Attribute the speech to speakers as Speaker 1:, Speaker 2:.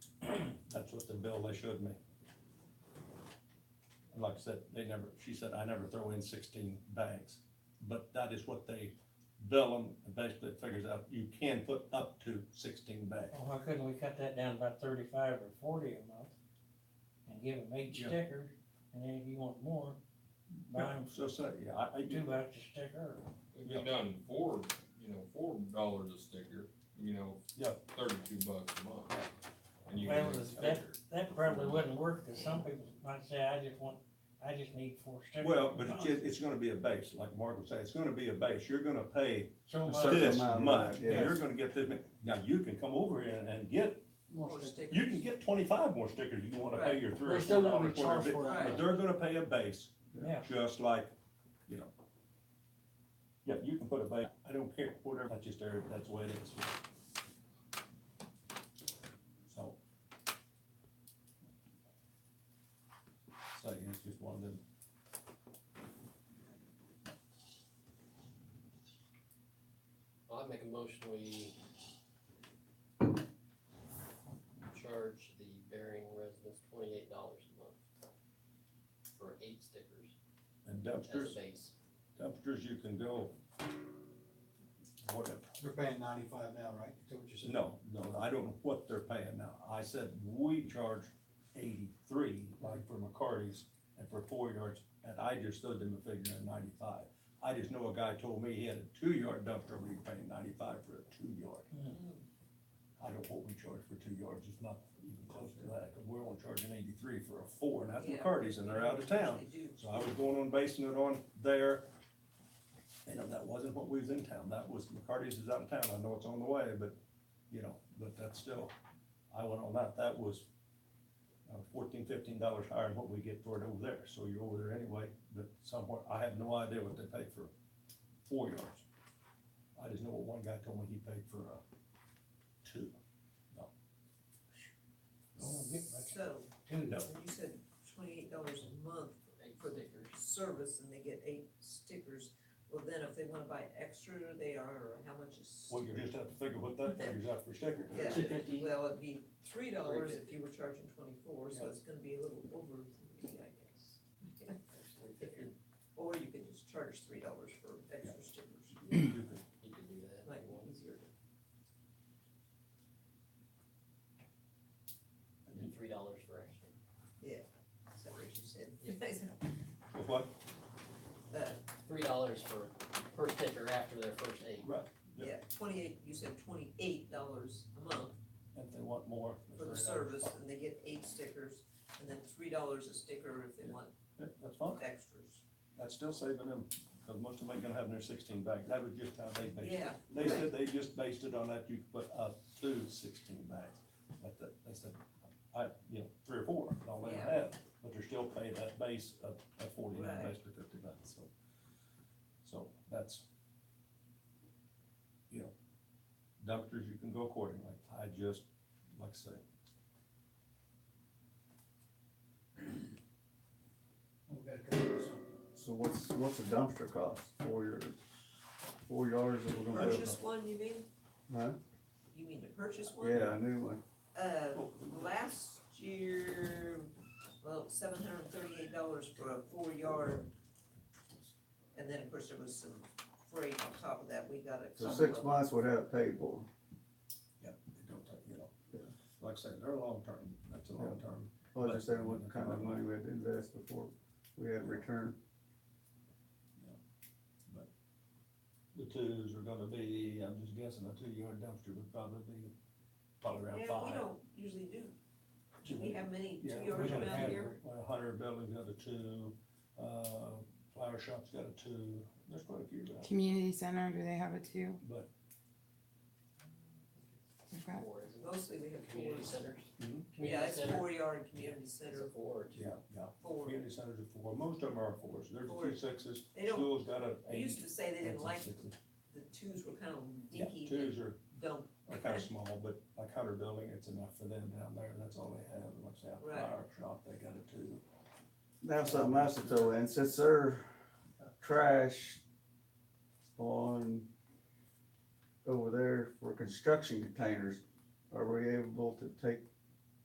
Speaker 1: bill, they showed me. And Like I said, they never, she said, I never throw in sixteen bags, but that is what they bill them, and basically it figures out you can put up to sixteen bags.
Speaker 2: Well, why couldn't we cut that down about thirty-five or forty a month? And give them each
Speaker 1: Yeah.
Speaker 2: sticker, and then if you want more, buy them
Speaker 1: So, so, yeah, I, I,
Speaker 2: two bucks a sticker.
Speaker 3: If you done four, you know, four dollars a sticker, you know,
Speaker 1: Yeah.
Speaker 3: thirty-two bucks a month. And you
Speaker 2: Well,
Speaker 3: get a
Speaker 2: it's that-
Speaker 3: sticker.
Speaker 2: That probably wouldn't work, cause some people might say, I just want, I just need four stickers. Uh,
Speaker 1: well,
Speaker 2: a
Speaker 1: but it's,
Speaker 2: month."
Speaker 1: just- it's gonna be a base, like Mark was saying, it's gonna be a base, you're gonna pay
Speaker 2: So
Speaker 4: a
Speaker 2: much,
Speaker 4: certain
Speaker 1: this
Speaker 4: amount,
Speaker 1: much,
Speaker 4: yeah.
Speaker 1: and you're gonna get this, many. now you can come over here and- and get
Speaker 5: Or
Speaker 4: Most of it.
Speaker 5: stick-
Speaker 1: You can get twenty-five more stickers, you wanna pay your three or
Speaker 4: They're
Speaker 1: four
Speaker 4: still gonna
Speaker 1: dollars.
Speaker 4: be charged
Speaker 1: whatever
Speaker 4: for
Speaker 1: it- But
Speaker 4: it.
Speaker 1: they're gonna pay a base,
Speaker 2: yeah,
Speaker 1: just like, you know. Yeah, you can put a base, I don't care, whatever, that's just there, that's the way it is. So. So, yeah, it's just one of them.
Speaker 6: I'd make a motion, we charge the Bering residents twenty-eight dollars a month for eight stickers
Speaker 1: And
Speaker 6: as
Speaker 1: dumpsters,
Speaker 6: a base.
Speaker 1: dumpsters, you can go. Whatever,
Speaker 4: They're paying ninety-five now, right? Is that what you said?
Speaker 1: no, no, I don't know what they're paying now, I said we charge eighty-three, like for McCarty's, and for four yards, and I just stood them a figure at ninety-five. I just know a guy told me he had a two-yard dumpster, we paying ninety-five for a two-yard. I don't know what we charge for two yards, it's not even close to that, we we're only charging eighty-three for a four, and that's
Speaker 5: Yeah.
Speaker 1: McCarty's, and they're out of town.
Speaker 5: They do.
Speaker 1: So I was going on basing it on there, and that wasn't what we was in town, that was, McCarty's is out of town, I know it's on the way, but, you know, but that's still, I went on that, that was uh, fourteen, fifteen dollars higher than what we get for it over there, so you're over there anyway, but somewhere, I have no idea what they pay for four yards. I just know what one guy told me he paid for, uh, two,
Speaker 2: Oh, get much.
Speaker 5: So,
Speaker 2: two,
Speaker 1: no,
Speaker 5: you said twenty-eight dollars a month
Speaker 6: Eight
Speaker 5: for the
Speaker 6: stickers.
Speaker 5: service and they get eight stickers. Well, then if they wanna buy extra, they are, or how much is?
Speaker 1: well, you just have to figure what that figures out for sticker.
Speaker 5: Yeah,
Speaker 4: Two fifty.
Speaker 5: well, it'd be three dollars if you were charging twenty-four, so it's gonna be a little over three, I guess. Or you could just charge three dollars for extra stickers,
Speaker 1: You could
Speaker 6: You could do that.
Speaker 5: that might be easier.
Speaker 6: And three dollars for extra.
Speaker 5: Is that what you said?
Speaker 6: Yeah.
Speaker 1: With what?
Speaker 5: Uh,
Speaker 6: Three dollars for per sticker after their first eight.
Speaker 1: Yeah.
Speaker 5: Yeah, twenty-eight, you said twenty-eight dollars a month
Speaker 1: If they want more.
Speaker 5: for the
Speaker 1: $3.
Speaker 5: service, and they get eight stickers, and then three dollars a sticker if they want
Speaker 1: Yeah, That's fine,
Speaker 5: extras.
Speaker 1: that's still saving them, cause most of them ain't gonna have their sixteen bags, that was just how they based it.
Speaker 5: Yeah,
Speaker 1: They said they just based it on that you could put up to sixteen bags, but that, they said, I, you know, three or four, don't let them
Speaker 5: Yeah.
Speaker 1: have, but they're still paying that base of, of forty-nine,
Speaker 5: Right.
Speaker 1: basically fifty-nine, so. So that's, you know, doctors, you can go accordingly, I just, like I say,
Speaker 4: We gotta come up with something.
Speaker 7: So what's, what's a dumpster cost? Four yards, four yards that we're gonna
Speaker 5: purchase one, you mean?
Speaker 7: Huh?
Speaker 5: You mean to purchase
Speaker 7: put?
Speaker 5: one?
Speaker 7: Yeah, a new one.
Speaker 5: Uh, last year, well, seven hundred and thirty-eight dollars for a four-yard. And then, of course, there was some freight on top of that, we got a.
Speaker 7: So
Speaker 5: couple
Speaker 7: six
Speaker 5: of-
Speaker 7: months would have paid for. it.
Speaker 1: they don't take, you know.
Speaker 7: Yeah.
Speaker 1: Like I said, they're long-term, that's a long-term,
Speaker 7: I was just saying what kind of money we had to invest before we had return.
Speaker 1: The twos are gonna be, I'm just guessing, a two-yard dumpster would probably be probably around
Speaker 5: Yeah, we
Speaker 1: five.
Speaker 5: don't usually do,
Speaker 1: Two-
Speaker 5: we have many
Speaker 1: Yeah,
Speaker 5: two-yard
Speaker 1: we don't
Speaker 5: around
Speaker 1: have-
Speaker 5: here.
Speaker 1: well, A hundred building's got a two, uh, flower shop's got a two, there's quite a few around,
Speaker 8: Community center, do they have it too?
Speaker 1: but,
Speaker 8: I've got-
Speaker 6: Four, isn't it?
Speaker 5: Mostly we have
Speaker 6: Community
Speaker 5: fours.
Speaker 6: centers.
Speaker 1: Mhm.
Speaker 5: Yeah,
Speaker 6: Community
Speaker 5: it's
Speaker 6: center.
Speaker 5: four-yard and community
Speaker 6: It's a
Speaker 5: center,
Speaker 6: four or two.
Speaker 1: yeah, yeah.
Speaker 5: four.
Speaker 1: Community centers are four, most of them are fours, there's a few
Speaker 5: Fours.
Speaker 1: sixes,
Speaker 5: They don't-
Speaker 1: school's got a
Speaker 5: They used
Speaker 1: eight.
Speaker 5: to say they
Speaker 1: and
Speaker 5: didn't
Speaker 1: some
Speaker 5: like,
Speaker 1: sixes.
Speaker 5: the twos were kind of
Speaker 1: Yeah,
Speaker 5: dinky and
Speaker 1: twos are,
Speaker 5: dumb.
Speaker 1: are kinda small, but like hundred building, it's enough for them down there, that's all they have, and what's out,
Speaker 5: Right.
Speaker 1: flower shop, they got a two.
Speaker 7: Now something else to throw in, since they're trash on over there for construction containers, are we able to take